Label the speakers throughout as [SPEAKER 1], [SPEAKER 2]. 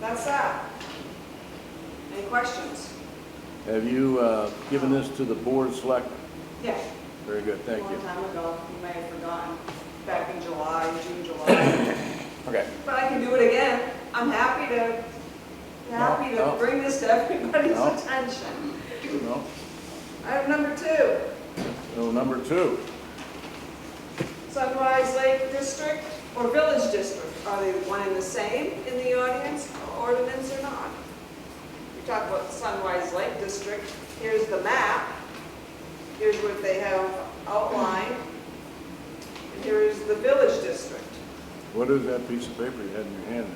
[SPEAKER 1] That's that. Any questions?
[SPEAKER 2] Have you uh, given this to the board select?
[SPEAKER 1] Yeah.
[SPEAKER 2] Very good,
[SPEAKER 1] a
[SPEAKER 2] thank
[SPEAKER 1] Long
[SPEAKER 2] you.
[SPEAKER 1] time ago, you may have forgotten, back in July, June, July.
[SPEAKER 2] Okay.
[SPEAKER 1] But I can do it again. I'm happy to, happy
[SPEAKER 2] No,
[SPEAKER 1] to
[SPEAKER 2] no.
[SPEAKER 1] bring this to everybody's
[SPEAKER 2] No.
[SPEAKER 1] attention.
[SPEAKER 2] No.
[SPEAKER 1] Item number two.
[SPEAKER 2] So number two,
[SPEAKER 1] Sunrise Lake District or Village District, are they one and the same in the audience, ordinance or not? We talk about Sunrise Lake District, here's the map, here's what they have outlined, and here is the Village District.
[SPEAKER 2] what is that piece of paper you had in your hand,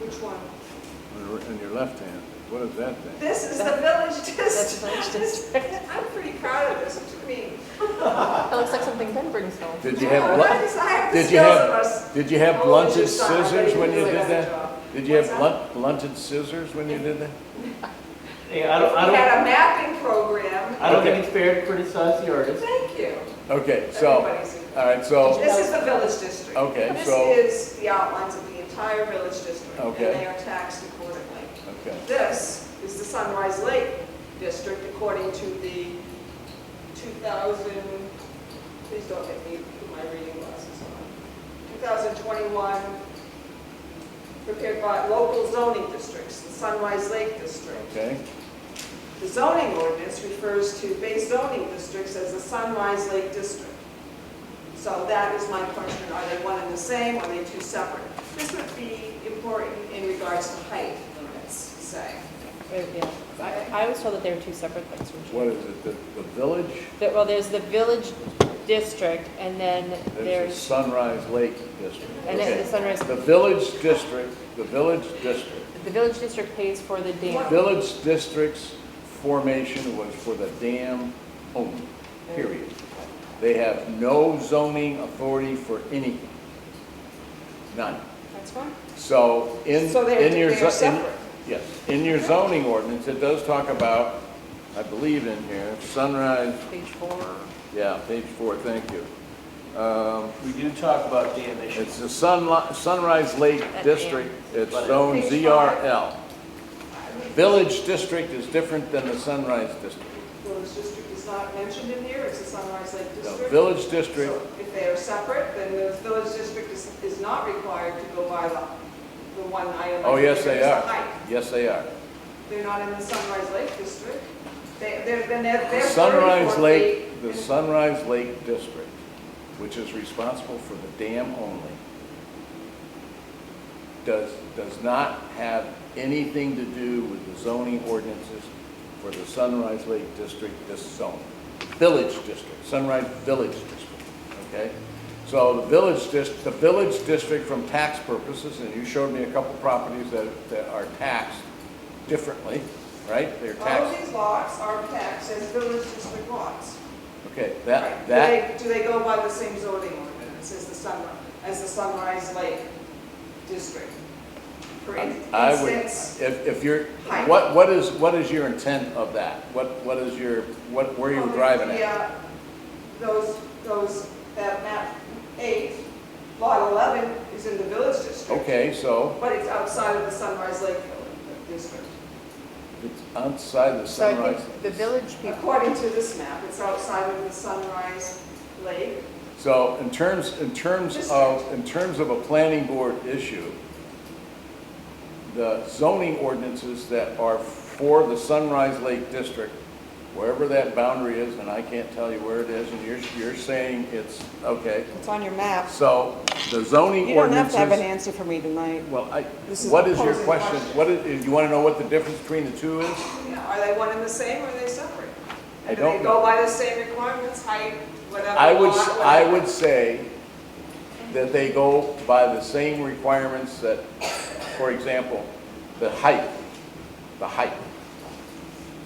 [SPEAKER 1] Which one?
[SPEAKER 2] on your- in your left hand? What is that thing?
[SPEAKER 1] This is the Village
[SPEAKER 3] That's the Village
[SPEAKER 1] District. I'm pretty proud of this, what do you mean?
[SPEAKER 3] That looks like something Ben brings home.
[SPEAKER 2] Did you have,
[SPEAKER 1] Why
[SPEAKER 2] blu-
[SPEAKER 1] does I have the
[SPEAKER 2] did you
[SPEAKER 1] skills of
[SPEAKER 2] have,
[SPEAKER 1] us?
[SPEAKER 2] did you have
[SPEAKER 1] Oh,
[SPEAKER 2] blunted
[SPEAKER 1] just thought I
[SPEAKER 2] scissors when you
[SPEAKER 1] really
[SPEAKER 2] did
[SPEAKER 1] got the
[SPEAKER 2] that?
[SPEAKER 1] job.
[SPEAKER 2] Did you have
[SPEAKER 1] What's
[SPEAKER 2] blunt- blunted scissors when you did that?
[SPEAKER 4] Hey, I don't, I
[SPEAKER 1] We
[SPEAKER 4] don't,
[SPEAKER 1] had a mapping program.
[SPEAKER 4] I don't think it's fair to criticize the artist.
[SPEAKER 1] Thank you.
[SPEAKER 2] Okay, so,
[SPEAKER 1] Everybody's.
[SPEAKER 2] all right, so,
[SPEAKER 1] This is the village district.
[SPEAKER 2] okay,
[SPEAKER 1] This
[SPEAKER 2] so,
[SPEAKER 1] is the outlines of the entire village district.
[SPEAKER 2] Okay.
[SPEAKER 1] And they are taxed accordingly.
[SPEAKER 2] okay,
[SPEAKER 1] This is the Sunrise Lake District according to the 2000, please don't get me, put my reading glasses on. 2021 prepared by local zoning districts, the Sunrise Lake District.
[SPEAKER 2] okay,
[SPEAKER 1] The zoning ordinance refers to base zoning districts as the Sunrise Lake District. So that is my question, are they one and the same, are they two separate? This would be important in regards to height limits, say.
[SPEAKER 3] Yeah. I I was told that they were two separate things from
[SPEAKER 2] what is it, the, the village?
[SPEAKER 3] That- Well, there's the village district, and then
[SPEAKER 2] There's the
[SPEAKER 3] there's,
[SPEAKER 2] Sunrise Lake District.
[SPEAKER 3] and then the
[SPEAKER 2] Okay.
[SPEAKER 3] sunrise,
[SPEAKER 2] The village district, the village district,
[SPEAKER 3] the village district pays for the dam.
[SPEAKER 2] village district's formation was for the dam only, period. They have no zoning authority for anything, none.
[SPEAKER 3] That's one?
[SPEAKER 2] So in,
[SPEAKER 1] So they're-
[SPEAKER 2] in your.
[SPEAKER 1] they're
[SPEAKER 2] zo- in-
[SPEAKER 1] separate.
[SPEAKER 2] Yes, in your zoning ordinance, it does talk about, I believe in here, Sunrise,
[SPEAKER 3] Page four.
[SPEAKER 2] yeah, page four, thank you. Um,
[SPEAKER 4] We do talk about dam
[SPEAKER 2] It's
[SPEAKER 4] issues.
[SPEAKER 2] the Sunli- Sunrise Lake
[SPEAKER 3] At the end.
[SPEAKER 2] District, it's
[SPEAKER 4] But-
[SPEAKER 2] zone
[SPEAKER 1] Page
[SPEAKER 2] ZRL. Village District is different than the Sunrise District.
[SPEAKER 1] Village district is not mentioned in here, it's the Sunrise Lake
[SPEAKER 2] The
[SPEAKER 1] District.
[SPEAKER 2] Village District,
[SPEAKER 1] So if they are separate, then the village district is, is not required to go by the, the one item.
[SPEAKER 2] oh, yes, they
[SPEAKER 1] It's the
[SPEAKER 2] are.
[SPEAKER 1] height.
[SPEAKER 2] Yes, they are.
[SPEAKER 1] They're not in the Sunrise Lake District. They, they're, then they're, they're.
[SPEAKER 2] Sunrise
[SPEAKER 1] 34
[SPEAKER 2] Lake, the
[SPEAKER 1] feet.
[SPEAKER 2] Sunrise Lake District, which is responsible for the dam only, does, does not have anything to do with the zoning ordinances for the Sunrise Lake District, this zone. Village District, Sunrise Village District, okay? So the village dis, the village district from tax purposes, and you showed me a couple properties that, that are taxed differently, right? They're
[SPEAKER 1] All of
[SPEAKER 2] taxed,
[SPEAKER 1] these lots are taxed as village district lots.
[SPEAKER 2] okay,
[SPEAKER 1] Right.
[SPEAKER 2] that, that.
[SPEAKER 1] Do they, do they go by the same zoning ordinance as the Sunrise, as the Sunrise Lake District? For in-
[SPEAKER 2] I would,
[SPEAKER 1] instance,
[SPEAKER 2] if, if you're,
[SPEAKER 1] Height.
[SPEAKER 2] what, what is, what is your intent of that? What, what is your, what, where are you driving
[SPEAKER 1] the,
[SPEAKER 2] at?
[SPEAKER 1] uh, Those, those, that map eight, lot 11 is in the village district.
[SPEAKER 2] Okay, so
[SPEAKER 1] But it's outside of the Sunrise Lake District.
[SPEAKER 2] it's outside the
[SPEAKER 3] So I
[SPEAKER 2] sunrise.
[SPEAKER 3] think the village people,
[SPEAKER 1] According to this map, it's outside of the Sunrise Lake.
[SPEAKER 2] So in terms, in terms of, in terms of a planning board issue, the zoning ordinances that are for the Sunrise Lake District, wherever that boundary is, and I can't tell you where it is, and you're, you're saying it's, okay.
[SPEAKER 5] It's on your map.
[SPEAKER 2] So the zoning
[SPEAKER 5] You
[SPEAKER 2] ordinances.
[SPEAKER 5] don't have to have an answer for me tonight.
[SPEAKER 2] Well, I,
[SPEAKER 5] This is
[SPEAKER 2] what is
[SPEAKER 5] a
[SPEAKER 2] your
[SPEAKER 1] posing
[SPEAKER 2] question?
[SPEAKER 1] question.
[SPEAKER 2] What is, you want to know what the difference between the two is?
[SPEAKER 1] Yeah, Are they one and the same or are they separate?
[SPEAKER 2] I
[SPEAKER 1] And
[SPEAKER 2] don't
[SPEAKER 1] Do they go by the same requirements, height, whatever?
[SPEAKER 2] I would,
[SPEAKER 1] lot,
[SPEAKER 2] I
[SPEAKER 1] whatever?
[SPEAKER 2] would say that they go by the same requirements that, for example, the height, the height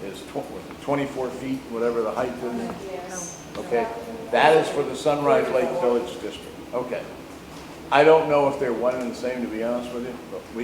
[SPEAKER 2] is tw- was it 24 feet, whatever the height is.
[SPEAKER 1] Yes.
[SPEAKER 2] Okay, that is for the Sunrise Lake Village District. Okay. I don't know if they're one and the same, to be honest with you, but we